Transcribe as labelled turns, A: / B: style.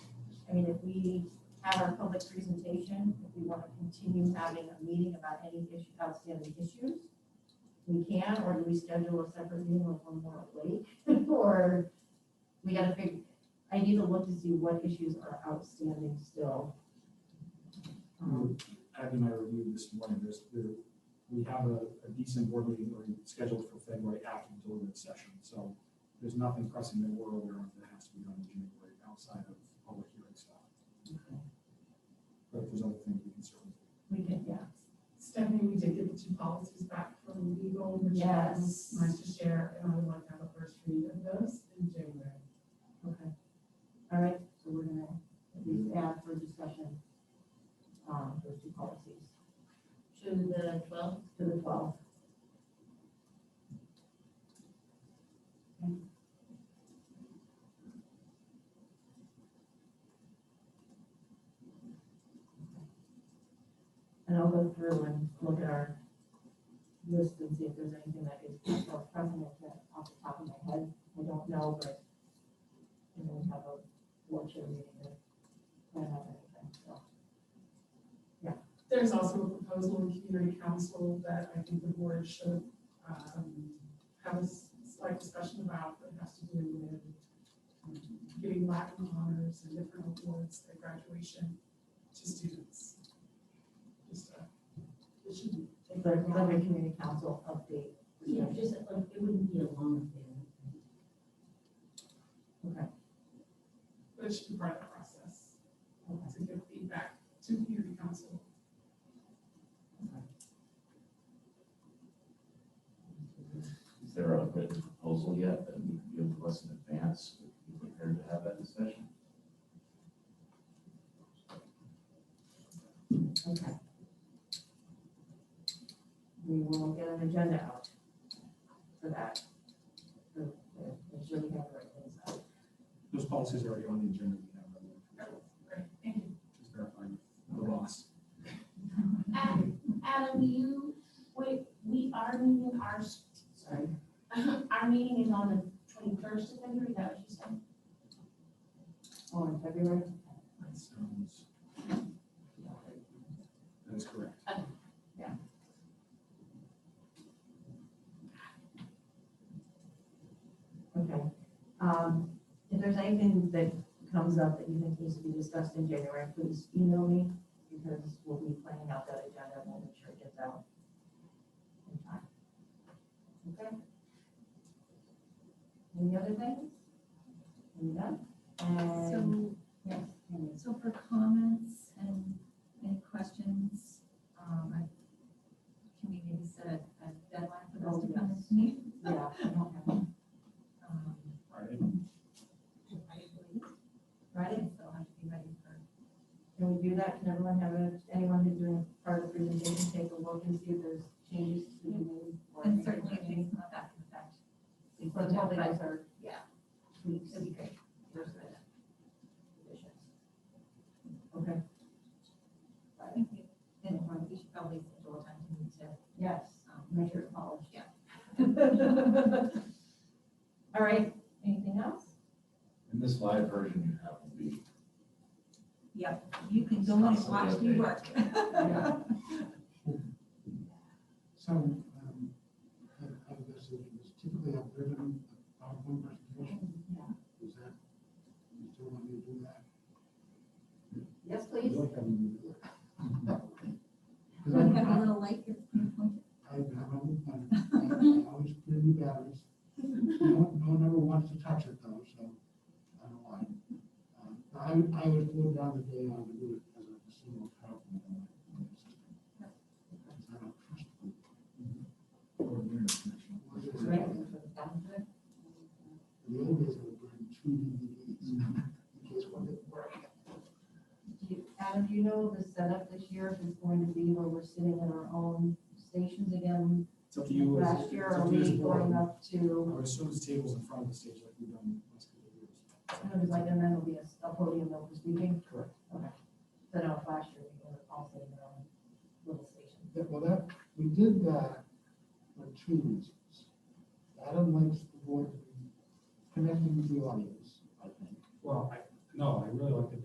A: I mean, if we have our public presentation, if we want to continue having a meeting about any issue, outstanding issues, we can, or do we schedule a separate meeting with one more week? Or we gotta figure, I need to look to see what issues are outstanding still. Um,
B: Abby and I reviewed this morning, there's, there, we have a a decent board meeting already scheduled for February after the deliberative session, so there's nothing pressing that we're aware of that has to be done in January outside of public hearing stuff. But if there's other things we can certainly.
A: We can, yeah.
C: Stephanie, we did get the two policies back from legal, which I was
A: Yes.
C: nice to share, and I would like to have a first read of those in January.
A: Okay. All right, so we're gonna at least add for discussion, um, those two policies
D: to the twelfth.
A: to the twelve. And I'll go through and look at our list and see if there's anything that is present off the top of my head. I don't know, but and then we have a board chair meeting to plan out everything, so.
C: There's also a proposal in community council that I think the board should um, have a s- slight discussion about that has to do with um, giving Latin honors and different awards at graduation to students. Just, uh, it should be.
A: The Liberty Community Council update.
D: Yeah, just like, it wouldn't be a long thing.
A: Okay.
C: But it should be part of the process um, to give feedback to community council.
E: Is there a written proposal yet that we can give to us in advance? Would you be prepared to have that discussion?
A: Okay. We will get an agenda out for that. For, for, make sure we have the right things out.
B: Those policies are already on the agenda, we have them,
C: Great, thank you.
B: just verifying the loss.
D: Adam, Adam, you, we, we are meeting our, s- sorry, our meeting is on the twenty-first of February, is that what you said?
A: Oh, in February?
B: That sounds. That is correct.
A: Okay. Um, if there's anything that comes up that you think needs to be discussed in January, please email me because we'll be planning out that agenda and we'll make sure it gets out in time. Okay? Any other things? Are we done? And,
F: So,
A: yes, Amy.
F: so for comments and any questions, um, I, can we maybe set a, a deadline for those to come to me?
A: yeah, I don't have it.
F: Um,
B: Friday,
A: Right?
F: so I'll have to be ready for,
A: Can we do that? Can everyone have a, anyone who's doing part of the presentation, take a look and see if there's changes to be made? or
F: and
A: anything
F: certainly if
A: changed?
F: things come up after the fact.
A: So probably those are
F: Yeah,
A: tweaks.
F: that'd be great.
A: versus conditions. Okay,
F: I think we, then we should probably schedule a time to meet to,
A: yes,
F: um,
A: measure of polish.
F: Yeah.
A: All right, anything else?
E: And this live version you have will be,
F: you can go and watch me work.
G: So, um, out of this, is typically a ribbon, a PowerPoint presentation. Is that, you still want me to do that?
A: Yes,
B: we
A: please.
B: like having you.
F: Look,
G: Because
F: I'm a little late here.
G: I, I, I always- I I always put in new batteries. No, one- no one ever wants to touch it though, so I don't like. Um, I would, I would go down the day, I would do it as a single PowerPoint. on my- on my system. Because I don't trust them.
B: Mm-hmm. Or internet connection.
G: In The old days, I would bring two DVDs in case one didn't work.
A: Do you- Adam, do you know the setup this year is going to be where we're sitting in our own stations again?
B: It's up to you. as-
A: Last year,
B: it's up
A: are
B: to you as
A: we
B: a board.
A: going up
B: I
A: to,
B: would assume this table's in front of the stage like we've done the last couple of years.
A: I know there's like, and then there'll be a- a podium that uh,